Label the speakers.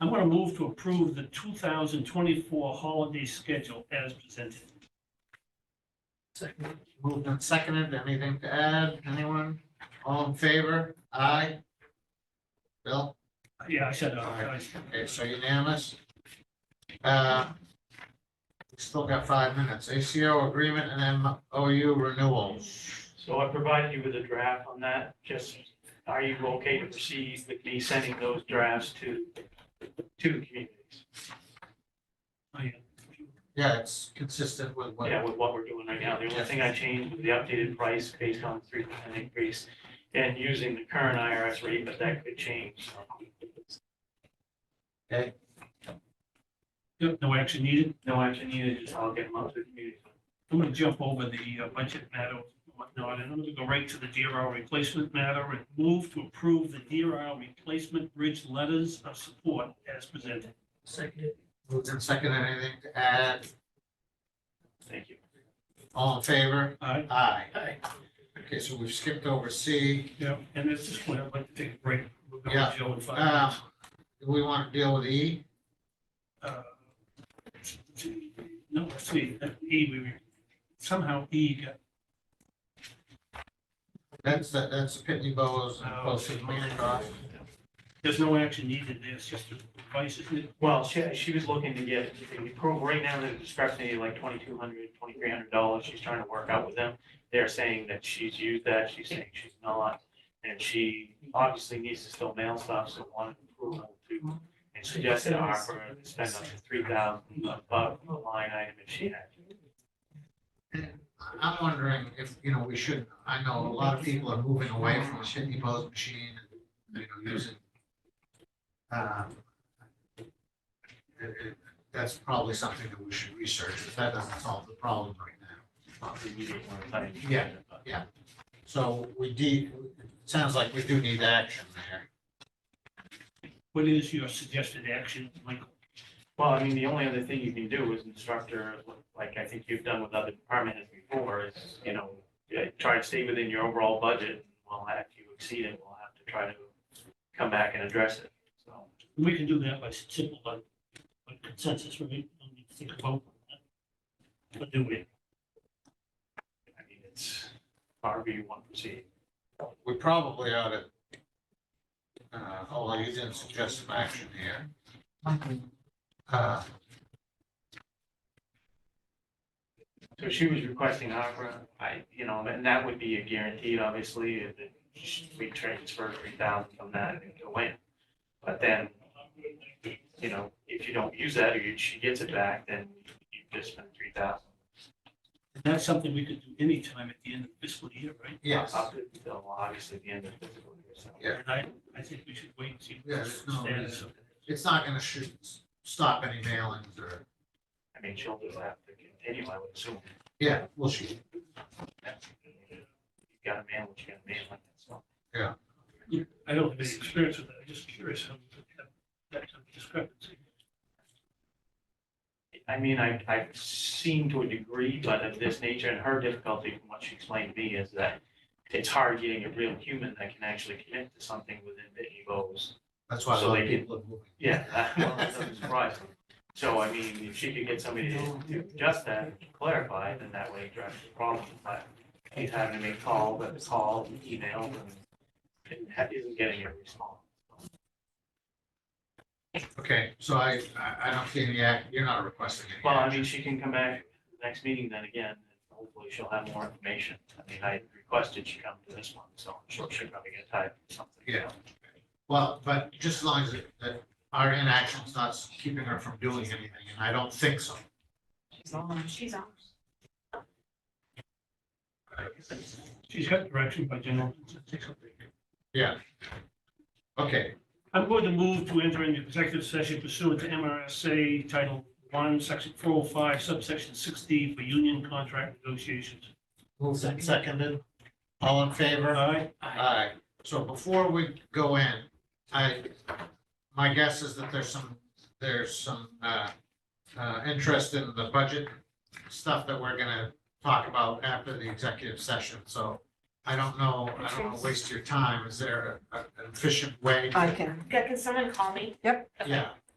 Speaker 1: I'm gonna move to approve the two thousand twenty-four holiday schedule as presented.
Speaker 2: Second, Moved and seconded, anything to add, anyone? All in favor? Aye. Bill,
Speaker 1: Yeah, I said, uh,
Speaker 2: Aye.
Speaker 1: guys.
Speaker 2: okay, so unanimous. Uh, Still got five minutes, ACO agreement and MOU renewals.
Speaker 3: So I provided you with a draft on that, just, are you okay to proceed with me sending those drafts to, to the communities?
Speaker 1: Oh, yeah.
Speaker 2: Yeah, it's consistent with what,
Speaker 3: Yeah, with what we're doing right now, the only thing I changed was the updated price based on three percent increase and using the current IRS rate, but that could change. so.
Speaker 1: Yep, no action needed.
Speaker 3: No action needed, just I'll get them out to the community.
Speaker 1: I'm gonna jump over the uh, budget matter and whatnot, and I'm gonna go right to the DRL replacement matter and move to approve the DRL replacement bridge letters of support as presented.
Speaker 2: moved and seconded, anything to add,
Speaker 3: Thank you.
Speaker 2: all in favor?
Speaker 1: All right,
Speaker 2: Aye. Okay, so we've skipped over C,
Speaker 1: yeah, and at this point, I'd like to take a break. We'll go with
Speaker 2: Yeah,
Speaker 1: Joe in five
Speaker 3: Uh,
Speaker 2: um,
Speaker 1: minutes.
Speaker 2: do we want to deal with E?
Speaker 1: Uh, No, let's see, uh, E, we, somehow E got,
Speaker 2: That's, the- that's the Pitney Bowes and
Speaker 1: Oh,
Speaker 2: posted
Speaker 1: okay.
Speaker 2: Bancroft.
Speaker 1: there's no action needed, there's just a advice, isn't it?
Speaker 3: Well, she, she was looking to get, right now, there's a discrepancy like twenty-two hundred, twenty-three hundred dollars, she's trying to work out with them. They're saying that she's used that, she's saying she's not, and she obviously needs to still mail stuff, so wanted approval to. And suggested our, for her to spend up to three thousand above the line item if she had.
Speaker 2: I'm wondering if, you know, we should, I know a lot of people are moving away from the Pitney Bowes machine, and you know, using. um, it- it- That's probably something that we should research, if that doesn't solve the problem right now.
Speaker 3: Not the immediate one, but-
Speaker 2: Yeah. So we de, it sounds like we do need action there.
Speaker 1: What is your suggested action, Michael?
Speaker 3: Well, I mean, the only other thing you can do is instructor, like I think you've done with other department heads before, is, you know, yeah, try to stay within your overall budget. Well, if you exceed it, we'll have to try to come back and address it, so.
Speaker 1: We can do that by simple, by by consensus, right? Don't need to think about. that. But do we?
Speaker 3: I mean, it's however you want to proceed.
Speaker 2: We probably ought to. Uh, although you didn't suggest some action here. Uh,
Speaker 3: So she was requesting opera, I, you know, and that would be a guaranteed, obviously, if it- we transfer three thousand from that into win. But then, you know, if you don't use that or you- she gets it back, then you just spent three thousand.
Speaker 1: And that's something we could do anytime at the end of the fiscal year, right?
Speaker 2: yes,
Speaker 3: Up until obviously the end of the fiscal year, so.
Speaker 2: Yeah.
Speaker 1: And I, I think we should wait and see.
Speaker 2: Yeah, there's no
Speaker 1: Stand
Speaker 2: reason.
Speaker 1: up.
Speaker 2: it's not gonna shoot, stop any mailings or.
Speaker 3: I mean, she'll just have to continue, I would assume.
Speaker 2: Yeah, well, she,
Speaker 3: You got a man, what you got a man like that, so.
Speaker 1: I don't have any experience with that, I'm just curious how we could have that kind of discrepancy.
Speaker 3: I mean, I, I've seen to a degree, but of this nature, and her difficulty, from what she explained to me, is that it's hard getting a real human that can actually commit to something within the E EVOs.
Speaker 2: that's why a
Speaker 3: So
Speaker 2: lot
Speaker 3: they
Speaker 2: of
Speaker 3: did-
Speaker 2: people are moving.
Speaker 3: Yeah, that well, that doesn't surprise me. So I mean, if she could get somebody to to adjust that, clarify, then that way address the problem, but he's having to make calls, but the calls, and emails, and and ha- isn't getting a response.
Speaker 2: Okay, so I, I, I don't see any act, you're not requesting any
Speaker 3: Well, I
Speaker 2: action.
Speaker 3: mean, she can come back next meeting then again, and hopefully she'll have more information. I mean, I requested she come to this one, so I'm sure she'll probably get tied to something.
Speaker 2: Yeah. Well, but just as long as it- that our inaction's not keeping her from doing anything, and I don't think so.
Speaker 4: She's on.
Speaker 1: She's got direction by general.
Speaker 2: Yeah. Okay,
Speaker 1: I'm going to move to enter into executive session pursuant to MRSA Title One, Section four oh five, subsection sixty for union contract negotiations.
Speaker 2: moved and seconded. All in favor?
Speaker 1: Aye.
Speaker 2: Aye. So before we go in, I, my guess is that there's some, there's some, uh, uh, interest in the budget stuff that we're gonna talk about after the executive session, so I don't know, I don't wanna waste your time. Is there a- a- an efficient way?
Speaker 5: I can,
Speaker 4: Yeah, can someone call me?
Speaker 5: Yep.
Speaker 4: Okay.
Speaker 2: Yeah,